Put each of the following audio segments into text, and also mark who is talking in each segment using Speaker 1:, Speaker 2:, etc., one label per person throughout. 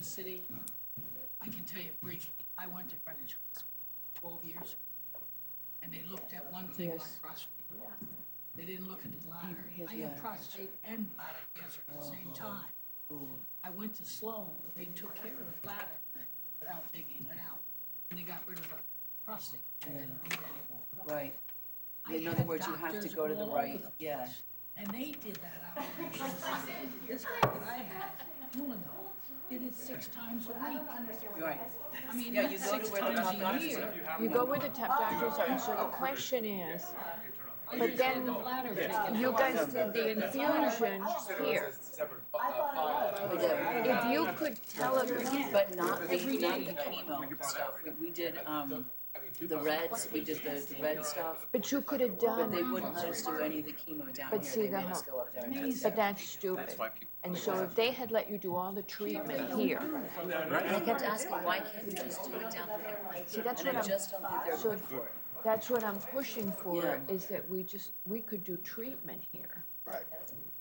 Speaker 1: city, I can tell you briefly, I went to Greenwich Hospital twelve years, ago, and they looked at one thing on
Speaker 2: Yes.
Speaker 1: prostate. They didn't look at the bladder.
Speaker 2: He has
Speaker 1: I had
Speaker 2: bladder Oh.
Speaker 1: prostate and bladder cancer at the same time. I went to Sloan, they took care of the bladder without taking it out, and they got rid of the prostate. They didn't need it anymore.
Speaker 2: Right,
Speaker 1: I
Speaker 2: in other
Speaker 1: had
Speaker 2: words, you have to
Speaker 1: doctors
Speaker 2: go to the
Speaker 1: all over
Speaker 2: right,
Speaker 1: the
Speaker 2: yeah,
Speaker 1: And they did that operation. This guy that I had, Mullenhour, did it six times a week.
Speaker 2: right.
Speaker 1: I mean,
Speaker 2: Yeah, you
Speaker 1: not
Speaker 2: go to
Speaker 1: six
Speaker 2: where the
Speaker 1: times a
Speaker 2: doctors-
Speaker 1: year.
Speaker 3: You go where the top doctors are, so the question is,
Speaker 1: I
Speaker 3: But
Speaker 1: just had
Speaker 3: then-
Speaker 1: the bladder taken
Speaker 3: you
Speaker 1: out.
Speaker 3: guys did the infusion here. If you could tell it,
Speaker 2: But not the,
Speaker 1: Every
Speaker 2: not
Speaker 1: day.
Speaker 2: the chemo stuff, we, we did, um, the reds, we did the, the red stuff,
Speaker 3: but you could have
Speaker 2: but they
Speaker 3: done,
Speaker 2: wouldn't let us do any of the chemo down
Speaker 3: Um, But
Speaker 2: here,
Speaker 3: see
Speaker 2: they
Speaker 3: the
Speaker 2: made us
Speaker 3: hump.
Speaker 2: go up there and do
Speaker 1: Amazing.
Speaker 3: but that's stupid. And so if they had let you do all the treatment here,
Speaker 2: And I kept asking, why can't we just do it down there?
Speaker 3: see, that's what
Speaker 2: And I
Speaker 3: I'm,
Speaker 2: just don't think they're good for it.
Speaker 3: that's what I'm pushing for,
Speaker 2: Yeah.
Speaker 3: is that we just, we could do treatment here.
Speaker 4: Right.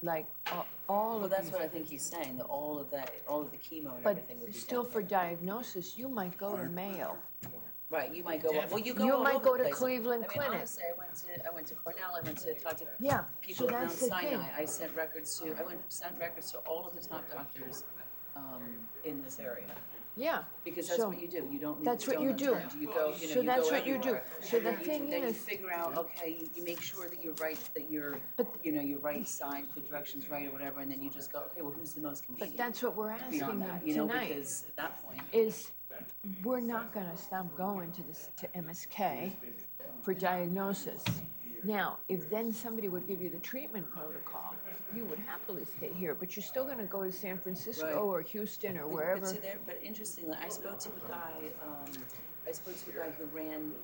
Speaker 3: Like, a- all
Speaker 2: Well,
Speaker 3: of
Speaker 2: that's
Speaker 3: these,
Speaker 2: what I think he's saying, that all of that, all of the chemo and
Speaker 3: but
Speaker 2: everything would be
Speaker 3: still
Speaker 2: down
Speaker 3: for diagnosis, you might go to Mayo.
Speaker 2: Right, you might go, well, you go
Speaker 3: You
Speaker 2: all
Speaker 3: might
Speaker 2: over
Speaker 3: go
Speaker 2: the
Speaker 3: to
Speaker 2: place.
Speaker 3: Cleveland
Speaker 2: I mean,
Speaker 3: Clinic.
Speaker 2: honestly, I went to, I went to Cornell, I went to, talked to
Speaker 3: Yeah, so
Speaker 2: people at Mount
Speaker 3: that's the thing.
Speaker 2: Sinai. I sent records to, I went, sent records to all of the top doctors, um, in this area.
Speaker 3: Yeah.
Speaker 2: Because that's
Speaker 3: So-
Speaker 2: what you do, you don't leave
Speaker 3: that's
Speaker 2: the
Speaker 3: what you
Speaker 2: stone
Speaker 3: do.
Speaker 2: unturned, you go, you know, you go everywhere.
Speaker 3: So that's what you do. So
Speaker 2: And
Speaker 3: the
Speaker 2: then you-
Speaker 3: thing
Speaker 2: Then you
Speaker 3: is-
Speaker 2: figure out, okay, you, you make sure that you're right, that you're,
Speaker 3: But-
Speaker 2: you know, your right side, the direction's right or whatever, and then you just go, okay, well, who's the most
Speaker 3: But
Speaker 2: convenient
Speaker 3: that's what we're asking
Speaker 2: beyond
Speaker 3: them
Speaker 2: that, you know,
Speaker 3: tonight,
Speaker 2: because at that point,
Speaker 3: is we're not gonna stop going to this, to MSK for diagnosis. Now, if then somebody would give you the treatment protocol, you would happily stay here, but you're still gonna go to San Francisco
Speaker 2: Right.
Speaker 3: or Houston or
Speaker 2: But-
Speaker 3: wherever.
Speaker 2: But, see there, but interestingly, I spoke to a guy. Um, I spoke to a guy who ran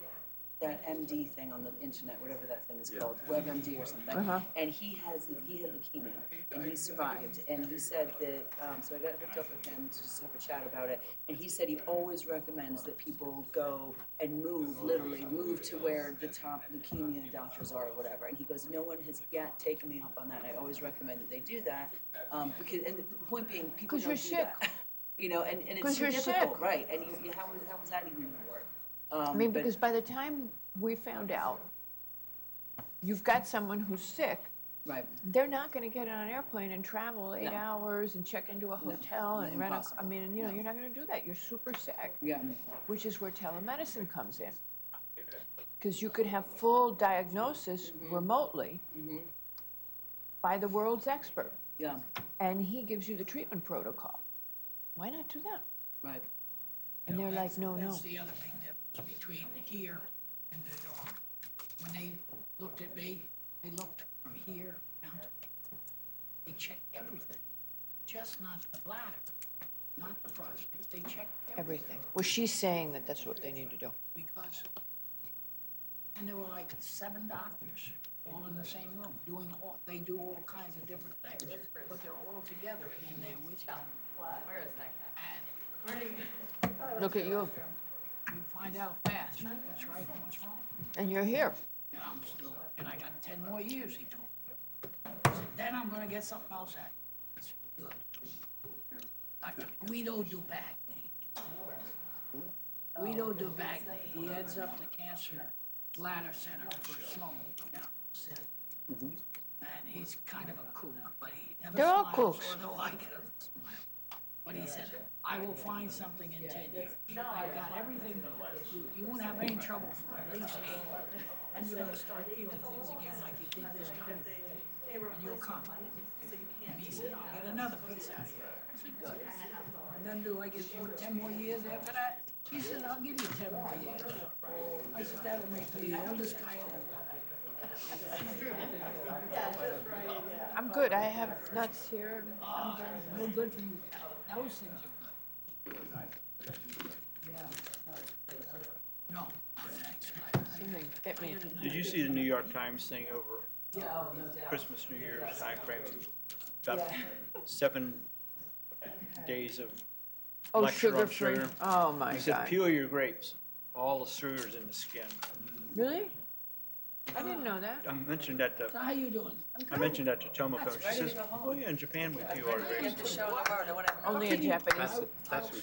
Speaker 2: that MD thing on the internet, whatever that thing is called, WebMD or something.
Speaker 3: Uh-huh.
Speaker 2: And he has he had leukemia and he survived. And he said that. Um, so I got hooked up with him to just have a chat about it. And he said he always recommends that people go and move, literally move to where the top leukemia doctors are or whatever. And he goes, no one has yet taken me up on that. I always recommend that they do that um, because. And the point being, people
Speaker 3: 'Cause
Speaker 2: don't
Speaker 3: you're
Speaker 2: do that.
Speaker 3: sick.
Speaker 2: You know, and, and it's
Speaker 3: 'Cause
Speaker 2: too
Speaker 3: you're
Speaker 2: difficult,
Speaker 3: sick.
Speaker 2: right, and you, you, how was, how was that even gonna work? Um,
Speaker 3: I mean, because by the time we found out, you've got someone who's sick,
Speaker 2: Right,
Speaker 3: they're not gonna get on an airplane and travel eight
Speaker 2: No.
Speaker 3: hours and check into a hotel and rent a, I
Speaker 2: impossible.
Speaker 3: mean, you know,
Speaker 2: No.
Speaker 3: you're not gonna do that, you're super sick.
Speaker 2: yeah,
Speaker 3: which is where telemedicine comes in. Because you could have full diagnosis remotely by the world's expert,
Speaker 2: yeah,
Speaker 3: and he gives you the treatment protocol. Why not do that?
Speaker 2: right,
Speaker 3: And they're like, no, Oh, no.
Speaker 1: That's the other big difference between here and the dorm. When they looked at me, they looked from here down to, they checked everything, just not the bladder, not the prostate, they checked everything
Speaker 3: Everything. Well, she's saying that that's what they need to do.
Speaker 1: because, and there were like seven doctors all in the same room, doing all, they do all kinds of different things, but they're all together in there with you.
Speaker 3: Look at you,
Speaker 1: You find out fast what's right and what's wrong.
Speaker 3: and you're here.
Speaker 1: And I'm still, and I got ten more years, he told me. I said, Then I'm gonna get something else at you. I said, Good. Dr. Guido Dubagny. Guido Dubagny, he heads up the cancer bladder center for Sloan down in City. And he's kind of a kook, but he never
Speaker 3: They're all
Speaker 1: smiles,
Speaker 3: kooks.
Speaker 1: although I get him to smile. But he said, I will find something in ten years. I got everything, you- you won't have any trouble for at least eight. And you're gonna start feeling things again like you did this time. And you'll come. And he said, I'll get another piece out of you. I said, good. And then do I get four- ten more years after that? He said, I'll give you ten more years. I said, that'll make me the oldest guy in the world.
Speaker 3: I'm good. I have nuts here.
Speaker 1: Ah, no good for you. Those things are good. Yeah. No, thanks. I- I-
Speaker 3: Something bit me.
Speaker 5: Did you see the New York Times thing over
Speaker 2: yeah, oh, no doubt,
Speaker 5: Christmas, New Year's timeframe? About seven days of,
Speaker 3: Oh,
Speaker 5: Lecture on
Speaker 3: sugar-free.
Speaker 5: sugar.
Speaker 3: Oh, my
Speaker 5: he said,
Speaker 3: God.
Speaker 5: peel your grapes, all the sugar's in the skin.
Speaker 3: Really? I didn't know that.
Speaker 5: I mentioned that
Speaker 1: So
Speaker 5: to,
Speaker 1: how you doing?
Speaker 5: I mentioned that to Tomoko,
Speaker 2: ready
Speaker 5: she
Speaker 2: to
Speaker 5: says,
Speaker 2: go home.
Speaker 5: oh yeah, in Japan we peel our grapes.
Speaker 2: get the show tomorrow, whatever.
Speaker 3: Only in Japanese.
Speaker 6: That's, that's who